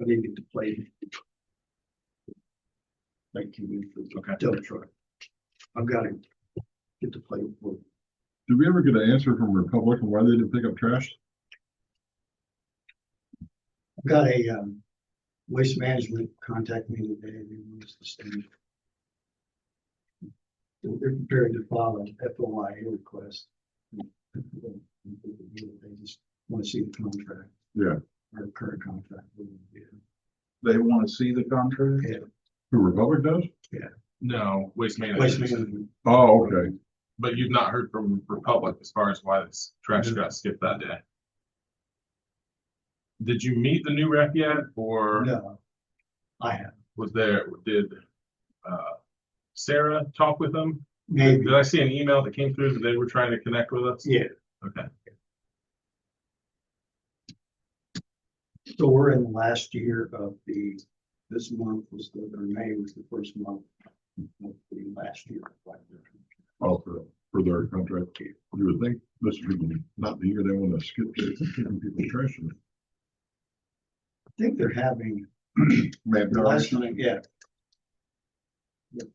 I didn't get to play. Thank you Okay. for dump truck. I've got to get to play with. Did we ever get an answer from Republic on why they didn't pick up trash? I've got a, um, waste management contact me today, and he wants to send. They're prepared to file an FOIA request. They just want to see the contract. Yeah. Our current contract. They want to see the contract? Who Republic does? No, Waste Waste Management, management, Oh, okay. but you've not heard from Republic as far as why this trash got skipped that day. Did you meet the new rep yet, or no. I have, was there, did, uh, Sarah talk with them? maybe, Did I see an email that came through that they were trying to connect with us? yeah. Okay, So we're in the last year of the, this month was the, or May was the first month of the last year. Oh, for, for their contract. You would think this would be not the year they want to skip giving people trash. in it. I think they're having, Man, the last night, yeah. Yep.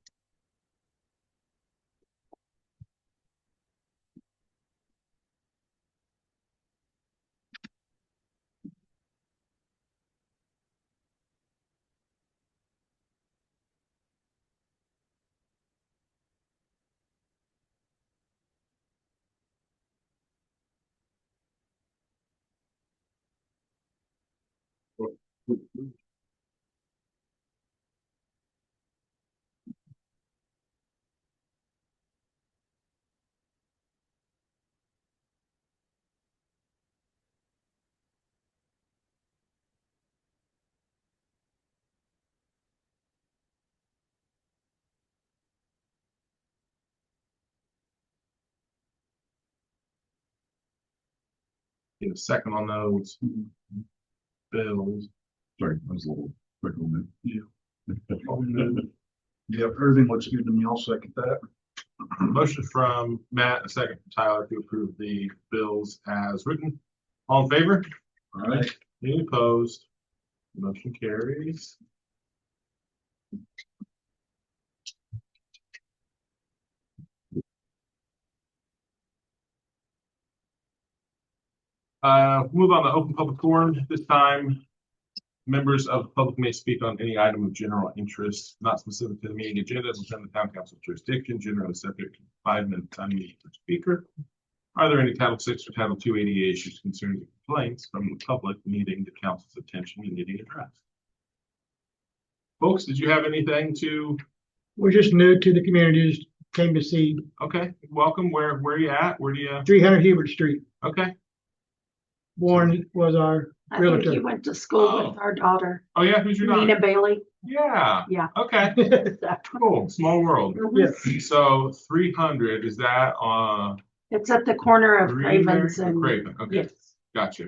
get a second on those Mm-hmm. bills. Sorry, I was a little quick on that. Yeah. Yeah, everything looks good to me. I'll second that. Motion from Matt, a second from Tyler to approve the bills as written. All in favor? All right. Any opposed? Motion carries. Uh, move on to open public forum. This time, members of the public may speak on any item of general interest, not specific to the meeting agenda, within the town council jurisdiction, generally subject to five minutes unmuted per speaker. Are there any Title VI or Title II ADA issues, concerns, or complaints from the public needing the council's attention and needing addressed? Folks, did you have anything to, We're just new to the community, just came to see okay, welcome, where, where you at, where do you, three hundred Hubert Street. okay, Warren was our, I think he Realtor. went to school with Oh. our daughter, oh yeah, who's your daughter? Nina Bailey. Yeah. Yeah. Okay, cool, small world. So three hundred, is that, uh, It's at the corner of Greenberg Cravens or and, Craven, okay, yes, gotcha.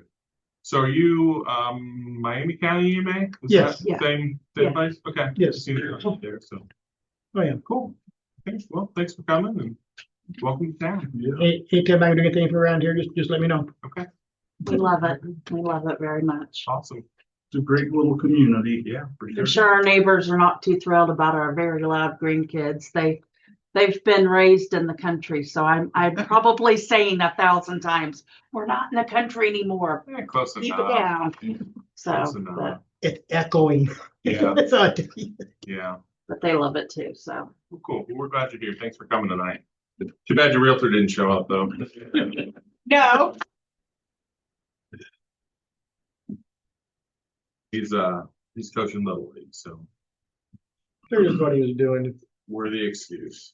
So are you, um, Miami County EMA? Is Yes. that Yeah. Same, Yeah. same place, okay. yes, See you there, so. I am. Cool. Thanks. Well, thanks for coming and welcome to town. Yeah. Any- Anytime I can do anything for around here, just, just let me know. Okay, we love it. We love it very much. awesome. It's a great little community. Yeah. for I'm sure our neighbors are not too thrilled about our very loud green kids. They, they've been raised in the country, so I'm, I'm probably saying a thousand times, we're not in the country anymore. Yeah, close Keep it enough. down. So, Close but, enough. It's echoing. Yeah, That's all I can- yeah. but they love it too, so. Well, Cool. Well, We're glad you're here. Thanks for coming tonight. Too bad your realtor didn't show up though. No. He's, uh, he's coaching Little League, so Here's what he was doing. worthy excuse.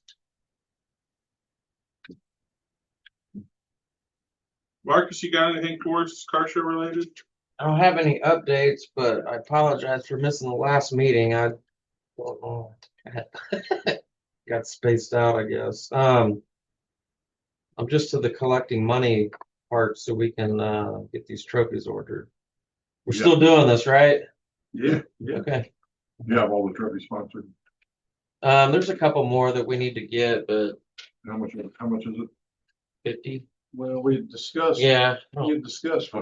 Marcus, you got anything for us, car show related? I don't have any updates, but I apologize for missing the last meeting. I don't know. Got spaced out, I guess. Um, I'm just to the collecting money part so we can uh, get these trophies ordered. We're Yeah. still doing this, right? Yeah. Yeah. Okay. You have all the trophy sponsored. Um, there's a couple more that we need to get, but How much, how much is it? fifty. Well, we discussed, Yeah. I don't discussed